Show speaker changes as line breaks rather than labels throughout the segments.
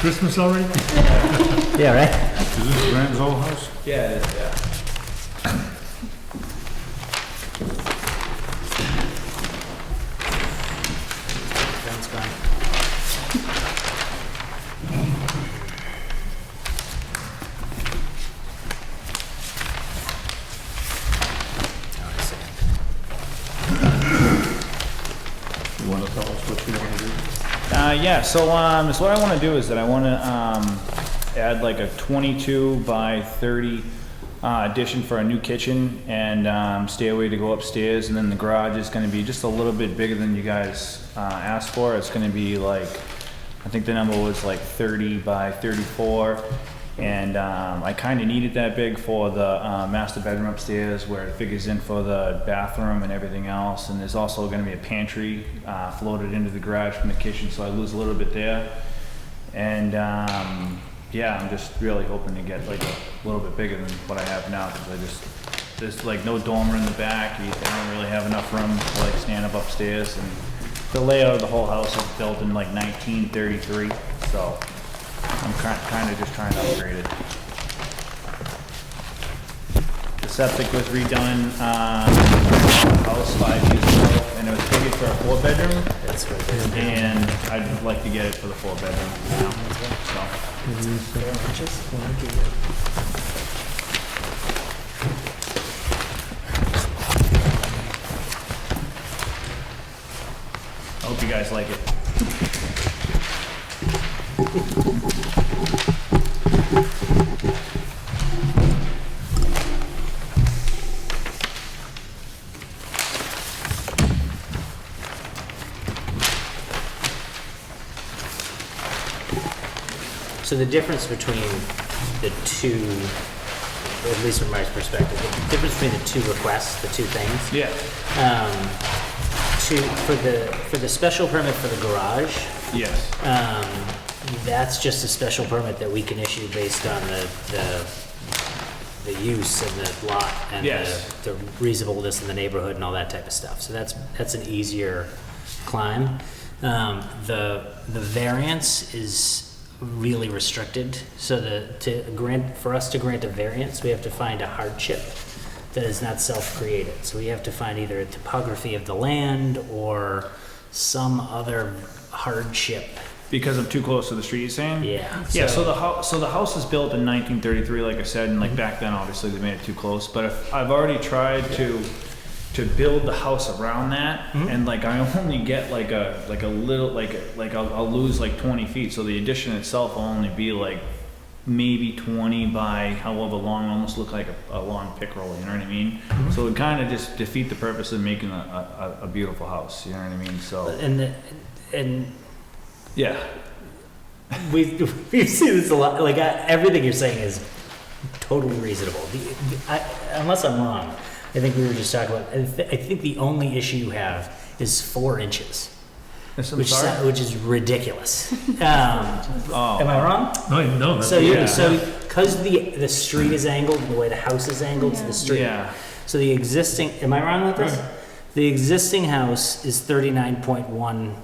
Christmas already? Is
Yeah, right?
this Graham's old house?
Yeah, it is, yeah.
Ben's gone. Hold on a second.
You wanna tell us what you wanna do?
Uh, yeah, so, um, so what I wanna do is that I wanna, um, add like a twenty-two by thirty, uh, addition for a new kitchen and, um, stairway to go upstairs, and then the garage is gonna be just a little bit bigger than you guys, uh, asked for. It's gonna be like, I think the number was like thirty by thirty-four, and, um, I kinda needed that big for the, uh, master bedroom upstairs where it figures in for the bathroom and everything else, and there's also gonna be a pantry, uh, floated into the garage from the kitchen, so I lose a little bit there. And, um, yeah, I'm just really hoping to get like a little bit bigger than what I have now, cause I just, there's like no dormer in the back, you I don't really have enough room to like stand up upstairs, and the layout of the whole house is built in like nineteen thirty-three, so I'm ki- kinda just trying to upgrade it. The septic was redone, um, house five years ago, and it was figured for a four-bedroom.
That's what it is.
And I'd like to get it for the four bedroom now, so. I hope you guys like it.
So the difference between the two, at least from my perspective, the difference between the two requests, the two things,
Yeah,
um, to, for the, for the special permit for the garage,
yes,
um, that's just a special permit that we can issue based on the, the, the use and the lot and
Yes.
the, the reasonableness in the neighborhood and all that type of stuff. So that's, that's an easier climb. Um, the, the variance is really restricted. So the, to grant, for us to grant a variance, we have to find a hardship that is not self-created. So we have to find either a topography of the land or some other hardship
because I'm too close to the street, you're saying?
yeah.
Yeah, so the house, so the house is built in nineteen thirty-three, like I said, and
Mm-hmm.
like back then, obviously, they made it too close, but if, I've already tried to, to build the house around that,
Mm-hmm.
and like, I only get like a, like a little, like, a- like I'll, I'll lose like twenty feet, so the addition itself will only be like maybe twenty by however long, almost look like a, a long pick roll, you know what I mean?
Mm-hmm.
So it kinda just defeat the purpose of making a, a, a beautiful house, you know what I mean, so,
and the, and
yeah,
we we've seen this a lot. Like I, everything you're saying is totally reasonable. The, the- I, unless I'm wrong, I think we were just talking about. I, th- I think the only issue you have is four inches,
Yes, I'm
which
sorry.
sou- which is ridiculous. um, Am I wrong?
No, no,
So
that's,
you
Oh. Yeah.
so because the the street is angled and the way the house is angled to the street.
Yeah.
So the existing. Am I wrong with this? The existing house is thirty nine point one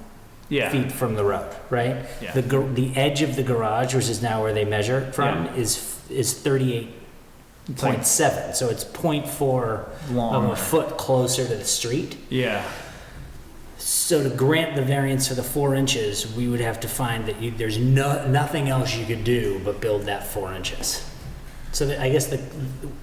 Yeah.
feet from the road, right?
Yeah.
The, gar- the edge of the garage, which is now where they measure from,
Yeah.
is, f- is thirty-eight point seven, so it's point four of
Long.
a foot closer to the street.
Oh, Yeah.
So to grant the variance for the four inches, we would have to find that you, there's no, nothing else you could do but build that four inches. So that, I guess the,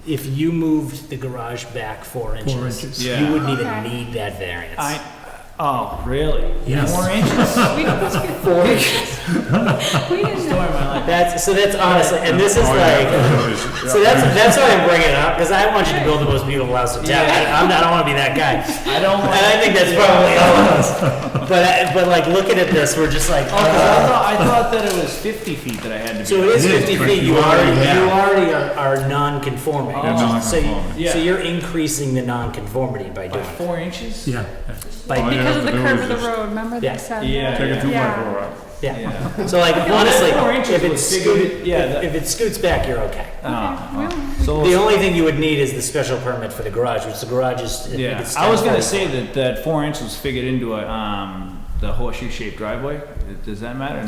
if you moved the garage back four inches,
inches.
Yeah.
you wouldn't even
Okay.
need that variance.
I, oh, really?
Yes.
More inches?
We we didn't know.
That's, so that's honestly, and this
Oh,
is like, So that's that's why I'm bringing it up because I want you to build the most beautiful house in town. I, I'm not, I don't want to be that guy.
I don't
And
like.
I think that's probably all of us. But I, but like looking at this, we're just like,
Oh, 'cause I thought, I thought that it was 50 feet that I had to be.
so it is
It is
50
correct.
feet. You
You
already
already
you
have.
already are, are non-conforming.
You're
So, you,
non-conforming.
Yeah.
so you're increasing the non-conformity by
By
doing it.
four inches?
yeah.
By
Oh, yeah.
Because of the
There
curve
was
of the
this-
road, remember
Yeah.
they said
Yeah,
that?
take a
two
Yeah.
by four out.
yeah.
Yeah.
So like
that's
honestly,
four inches
if it
was bigger
scoot,
than- yeah, that-
if it scoots back, you're okay.
Ah,
well.
ah. So,
The only thing you would need is the special permit for the garage, which the garage is. I think
yeah,
it's
I was
10
gonna
by
say that, that four inches was figured into a, um, the horseshoe shaped driveway. Does that matter?